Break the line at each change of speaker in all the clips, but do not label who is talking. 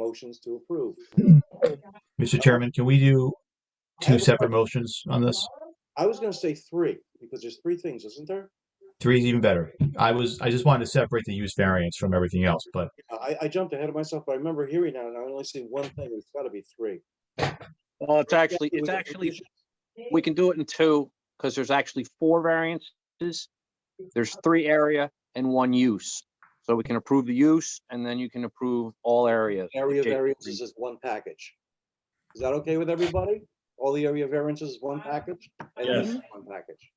motions to approve.
Mr. Chairman, can we do two separate motions on this?
I was gonna say three, because there's three things, isn't there?
Three is even better. I was, I just wanted to separate the use variance from everything else, but
I, I jumped ahead of myself, but I remember hearing that, and I only see one thing, it's gotta be three.
Well, it's actually, it's
With-
actually, we can do it in two, because there's actually four variances. There's three area and one use. So we can approve the use and then you can approve all areas.
Area
Jake,
variances is one package. Is that okay with everybody? All the area variances is one package? And
Yes.
this is One package.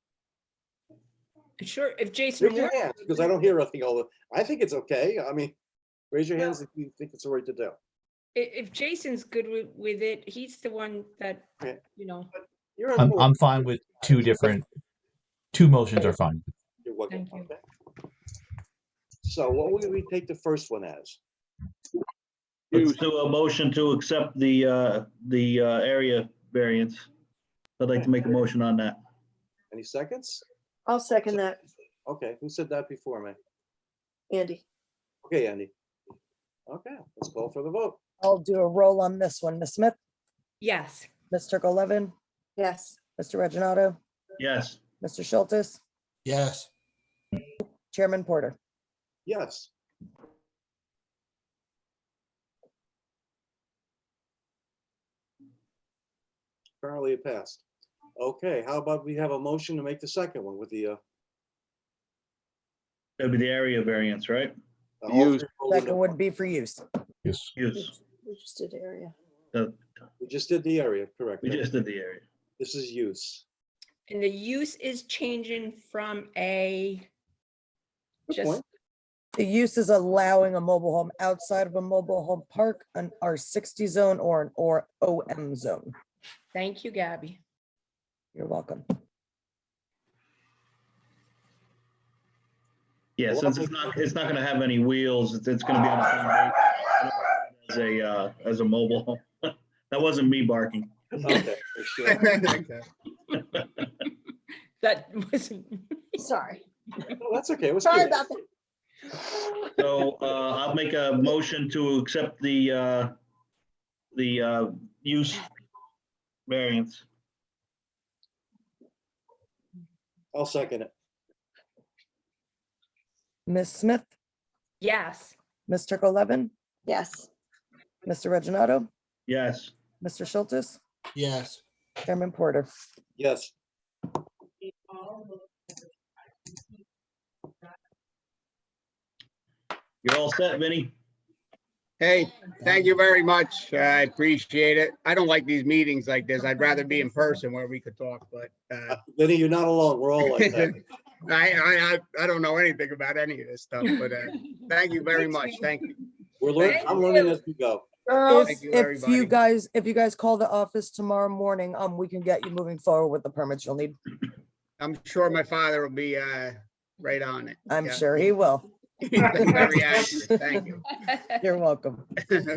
Sure, if Jason
Raise your
Moore,
hands, because I don't hear a thing all the, I think it's okay, I mean, raise your hands if you think it's the right to do.
i- if Jason's good with, with it, he's the one that,
Yeah.
you know,
You're on
I'm,
board.
I'm fine with two different, two motions are fine.
You're welcome.
Thank you.
Okay. So what would we take the first one as?
Let's-
To a motion to accept the, uh, the uh, area variance. I'd like to make a motion on that.
Any seconds?
I'll second that,
Okay, who said that before me?
Andy.
Okay, Andy. Okay, let's call for the vote.
I'll do a roll on this one. Ms. Smith,
yes,
Ms. Levin,
Yes,
Mr. Reggino,
Yes,
Mr. Schultz,
yes,
Chairman Porter.
Yes. Apparently it passed. Okay, how about we have a motion to make the second one with the, uh,
that'd be the area variance, right?
uh,
The
all
use.
three rolled into
Second
one.
would be for use.
Yes.
Use.
we just did area.
We just did the area, correct?
Uh, We just did the area.
This is use.
and the use is changing from a
Good
just,
point.
The use is allowing a mobile home outside of a mobile home park, an R60 zone or an or OM zone.
thank you, Gabby.
You're welcome.
Yeah, since it's not, it's not gonna have any wheels, it's, it's gonna be on a foundation. As a, uh, as a mobile. home. That wasn't me barking.
Okay, for sure.
That wasn't,
Sorry.
No, That's okay. it was
Sorry
good.
about that.
So, uh, I'll make a motion to accept the, uh, the, uh, use variance.
I'll second it.
Ms. Smith,
yes,
Ms. Levin,
Yes,
Mr. Reggino,
Yes,
Mr. Schultz,
yes.
Chairman Porter.
Yes.
you're all set, Vinny?
Hey, thank you very much. I appreciate it. I don't like these meetings like this. I'd rather be in person where we could talk, but uh,
Vinny, you're not alone. We're all like that.
I, I, I- I don't know anything about any of this stuff, but uh, thank you very much. Thank you.
We're learning, I'm learning as we go.
If
girls,
Thank you,
if you
everybody.
guys, if you guys call the office tomorrow morning, um, we can get you moving forward with the permits you'll need.
I'm sure my father will be uh, right on it.
I'm
Yeah.
sure he will.
Very accurate. Thank you.
You're welcome.
Thank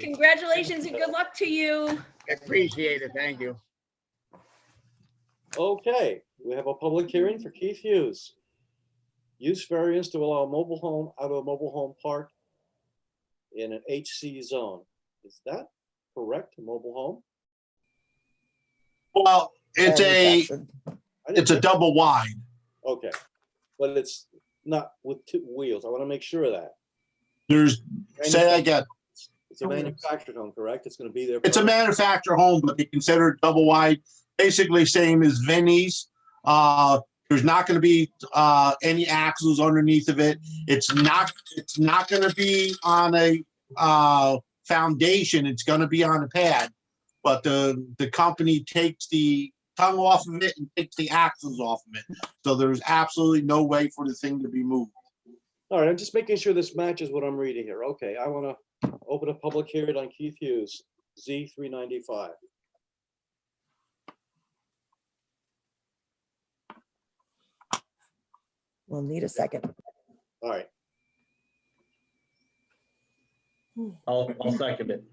congratulations and good luck to you.
Appreciate it. Thank you.
Okay, we have a public hearing for Keith Hughes. Use variance to allow a mobile home out of a mobile home park in an HC zone. Is that correct, mobile home?
Well, it's a,
Manufactured.
I didn't
it's a
think-
double wide.
Okay, but it's not with two wheels. I want to make sure of that.
There's, say that again,
It's a manufactured home, correct? It's going to be there.
it's a
forever.
manufactured home, but they consider it double wide, basically same as Vinnie's. Uh, there's not gonna be, uh, any axles underneath of it. It's not, it's not gonna be on a, uh, foundation. It's gonna be on a pad. But the, the company takes the tongue off of it and takes the axles off of it. So there's absolutely no way for the thing to be moved.
All right, I'm just making sure this matches what I'm reading here. Okay, I want to open a public hearing on Keith Hughes, Z three ninety-five.
We'll need a second.
All right,
I'll, I'll second it.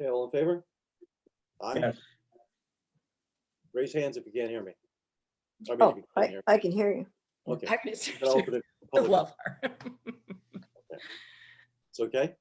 okay, all in favor? Aye.
Yes.
Raise hands if you can't hear me. I mean, if
oh,
you can't
I,
hear
I can hear you.
me. Okay.
I miss
then I'll
her.
open it
I
public.
love her.
It's okay?